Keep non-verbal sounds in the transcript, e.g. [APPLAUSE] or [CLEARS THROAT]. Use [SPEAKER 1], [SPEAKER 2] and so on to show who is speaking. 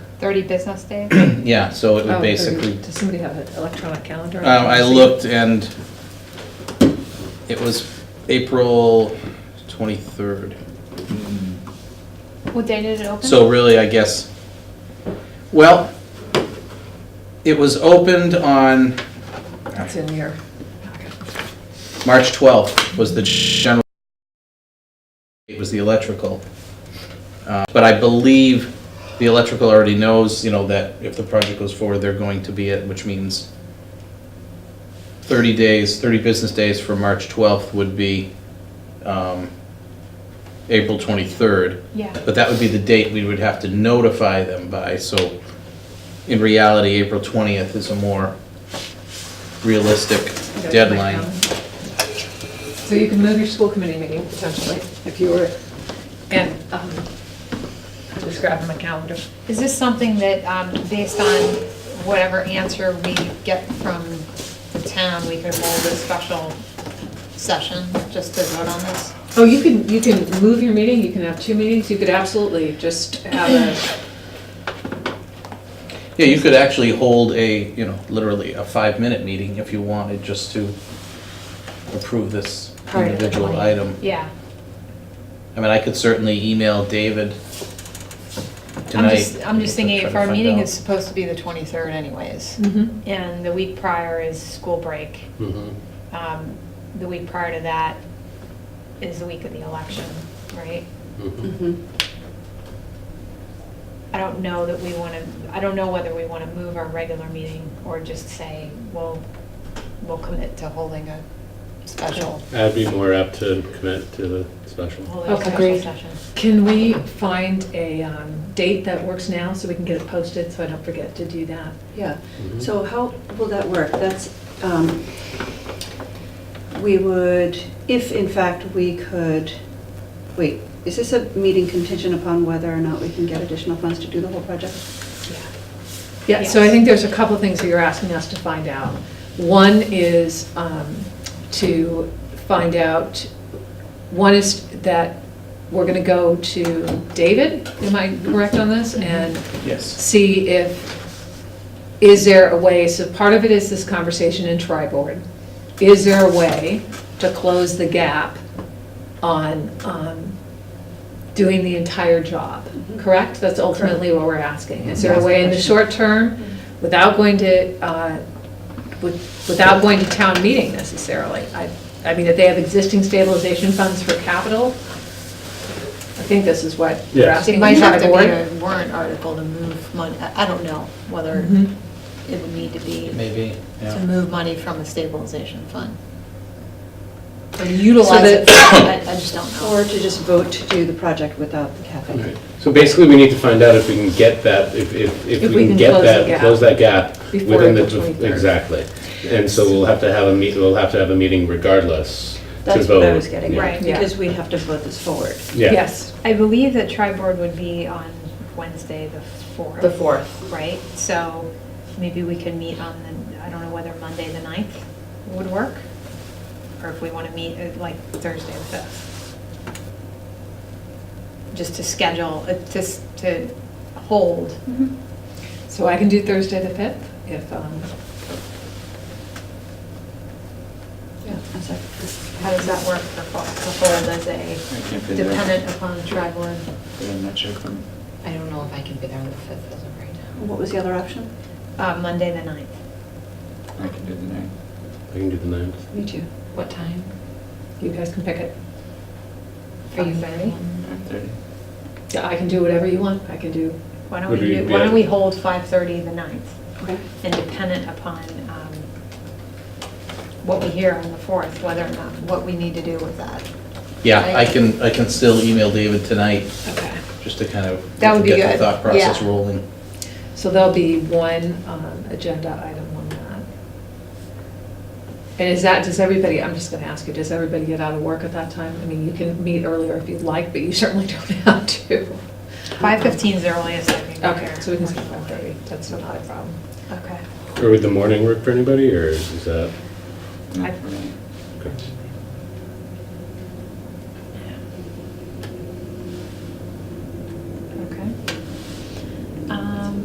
[SPEAKER 1] 30 business days?
[SPEAKER 2] [CLEARS THROAT] Yeah, so it would
[SPEAKER 3] Oh, thirty.
[SPEAKER 2] basically,
[SPEAKER 3] Does somebody have an electronic calendar?
[SPEAKER 2] Uh, I looked and it was April 23rd.
[SPEAKER 1] What day did it open?
[SPEAKER 2] So really, I guess, well, it was opened on
[SPEAKER 3] It's in your,
[SPEAKER 2] March 12th was the general, it was the electrical. Uh, But I believe the electrical already knows, you know, that if the project goes forward, they're going to be it, which means 30 days, 30 business days for March 12th would be um, April 23rd.
[SPEAKER 1] Yeah.
[SPEAKER 2] But that would be the date we would have to notify them by, so in reality, April 20th is a more realistic
[SPEAKER 3] you got it in my
[SPEAKER 2] deadline.
[SPEAKER 3] calendar. So you can move your school committee meeting potentially, if you were, and, um, just grabbing my calendar.
[SPEAKER 1] Is this something that, um, based on whatever answer we get from the town, we could hold a special session just to vote on this?
[SPEAKER 3] Oh, you can, you can move your meeting, you can have two meetings, you could absolutely just
[SPEAKER 2] [CLEARS THROAT]
[SPEAKER 3] have a,
[SPEAKER 2] Yeah, you could actually hold a, you know, literally a five-minute meeting if you wanted, just to approve this
[SPEAKER 1] Prior to the
[SPEAKER 2] individual
[SPEAKER 1] 20th.
[SPEAKER 2] item.
[SPEAKER 1] Yeah.
[SPEAKER 2] I mean, I could certainly email David
[SPEAKER 1] I'm
[SPEAKER 2] tonight.
[SPEAKER 1] just, I'm just
[SPEAKER 2] and
[SPEAKER 1] thinking
[SPEAKER 2] try
[SPEAKER 1] if
[SPEAKER 2] to
[SPEAKER 1] our
[SPEAKER 2] find
[SPEAKER 1] meeting
[SPEAKER 2] out.
[SPEAKER 1] is supposed to be the 23rd anyways,
[SPEAKER 2] Mm-hmm.
[SPEAKER 3] Mhm.
[SPEAKER 1] and the week prior is school break,
[SPEAKER 2] Mm-hmm.
[SPEAKER 1] um, the week prior to that is the week of the election, right? I don't know that we want to, I don't know whether we want to move our regular meeting or just say, well, we'll commit to holding a special,
[SPEAKER 4] I'd be more apt to commit to the special.
[SPEAKER 1] holding a
[SPEAKER 3] Okay.
[SPEAKER 1] special
[SPEAKER 3] Agreed.
[SPEAKER 1] session.
[SPEAKER 3] can we find a, um, date that works now so we can get it posted, so I don't forget to do that?
[SPEAKER 5] Yeah, so how will that work? That's, um, we would, if in fact we could, wait, is this a meeting contingent upon whether or not we can get additional funds to do the whole project?
[SPEAKER 3] Yeah, so I
[SPEAKER 1] Yes.
[SPEAKER 3] think there's a couple of things that you're asking us to find out. One is um, to find out, one is that we're going to go to David, am I correct on this? And
[SPEAKER 2] Yes.
[SPEAKER 3] see if, is there a way, so part of it is this conversation in tri-board. Is there a way to close the gap on um, doing the entire job?
[SPEAKER 1] Mm-hmm.
[SPEAKER 3] Correct? That's ultimately what we're asking. Is there a way in the short term, without going to, uh, with- without going to town meeting necessarily? I, I mean, if they have existing stabilization funds for capital, I think this is what we're
[SPEAKER 4] Yes.
[SPEAKER 3] asking.
[SPEAKER 1] It might
[SPEAKER 3] the
[SPEAKER 1] have to be
[SPEAKER 3] tri-board.
[SPEAKER 1] a warrant article to move money, I I don't know whether
[SPEAKER 3] Mhm.
[SPEAKER 1] it would need to be
[SPEAKER 2] Maybe,
[SPEAKER 1] to
[SPEAKER 2] yeah.
[SPEAKER 1] move money from the stabilization fund. Or utilize
[SPEAKER 3] that-
[SPEAKER 1] it, [COUGHS] I I just don't
[SPEAKER 5] Or
[SPEAKER 1] know.
[SPEAKER 5] to just vote to do the project without the cafe?
[SPEAKER 4] So basically, we need to find out if we can get that, if, if, if we can get
[SPEAKER 3] close the
[SPEAKER 4] that,
[SPEAKER 3] gap.
[SPEAKER 4] close that gap.
[SPEAKER 3] Before
[SPEAKER 4] within the
[SPEAKER 3] April 23rd.
[SPEAKER 4] Exactly. And so we'll have to have a meet, we'll have to have a meeting regardless to vote.
[SPEAKER 5] That's what I was getting
[SPEAKER 4] Yeah.
[SPEAKER 1] Right.
[SPEAKER 5] at, because we have to vote this forward.
[SPEAKER 4] Yeah.
[SPEAKER 3] Yes,
[SPEAKER 1] I believe that tri-board would be on Wednesday, the 4th.
[SPEAKER 3] the 4th.
[SPEAKER 1] right? So maybe we can meet on the, I don't know whether Monday, the 9th would work? Or if we want to meet uh, like Thursday, the 5th? Just to schedule, uh, to, s- to hold.
[SPEAKER 3] So I can do Thursday the 5th if, um,
[SPEAKER 5] Yeah. that's it.
[SPEAKER 1] How does that work for, fo- to hold as a
[SPEAKER 6] I can't figure out.
[SPEAKER 1] dependent upon tribal?
[SPEAKER 6] I'm not sure. from-
[SPEAKER 7] I don't know if I can be there on the 5th as of right now.
[SPEAKER 5] What was the other option?
[SPEAKER 1] Uh, Monday, the 9th.
[SPEAKER 6] I can do the name.
[SPEAKER 4] I can do the ninth.
[SPEAKER 5] Me too.
[SPEAKER 7] What time?
[SPEAKER 3] you guys can pick it.
[SPEAKER 1] Are you
[SPEAKER 7] Five,
[SPEAKER 1] ready?
[SPEAKER 7] one,
[SPEAKER 6] Nine thirty.
[SPEAKER 3] Yeah, I can do whatever you want. I can do,
[SPEAKER 1] Why don't we
[SPEAKER 4] Would we
[SPEAKER 1] do,
[SPEAKER 4] be
[SPEAKER 1] why
[SPEAKER 4] at-
[SPEAKER 1] don't we hold 5:30 the 9th?
[SPEAKER 5] Okay.
[SPEAKER 1] and dependent upon um, what we hear on the 4th, whether or not, what we need to do with that.
[SPEAKER 2] Yeah, I can, I can still email David tonight,
[SPEAKER 3] okay.
[SPEAKER 2] just to kind of
[SPEAKER 1] That would be
[SPEAKER 2] Get
[SPEAKER 1] good,
[SPEAKER 2] the thought process
[SPEAKER 1] yeah.
[SPEAKER 2] rolling.
[SPEAKER 3] So there'll be one um, agenda item on that. And is that, does everybody, I'm just going to ask you, does everybody get out of work at that time? I mean, you can meet earlier if you'd like, but you [LAUGHS] certainly don't have to.
[SPEAKER 1] 5:15 is the earliest I can get
[SPEAKER 3] Okay,
[SPEAKER 1] here.
[SPEAKER 3] so we can skip 5:30. That's not a problem.
[SPEAKER 1] Okay.
[SPEAKER 4] Or would the morning work for anybody, or is that?
[SPEAKER 1] I-
[SPEAKER 6] Not for me.
[SPEAKER 4] okay.
[SPEAKER 1] um,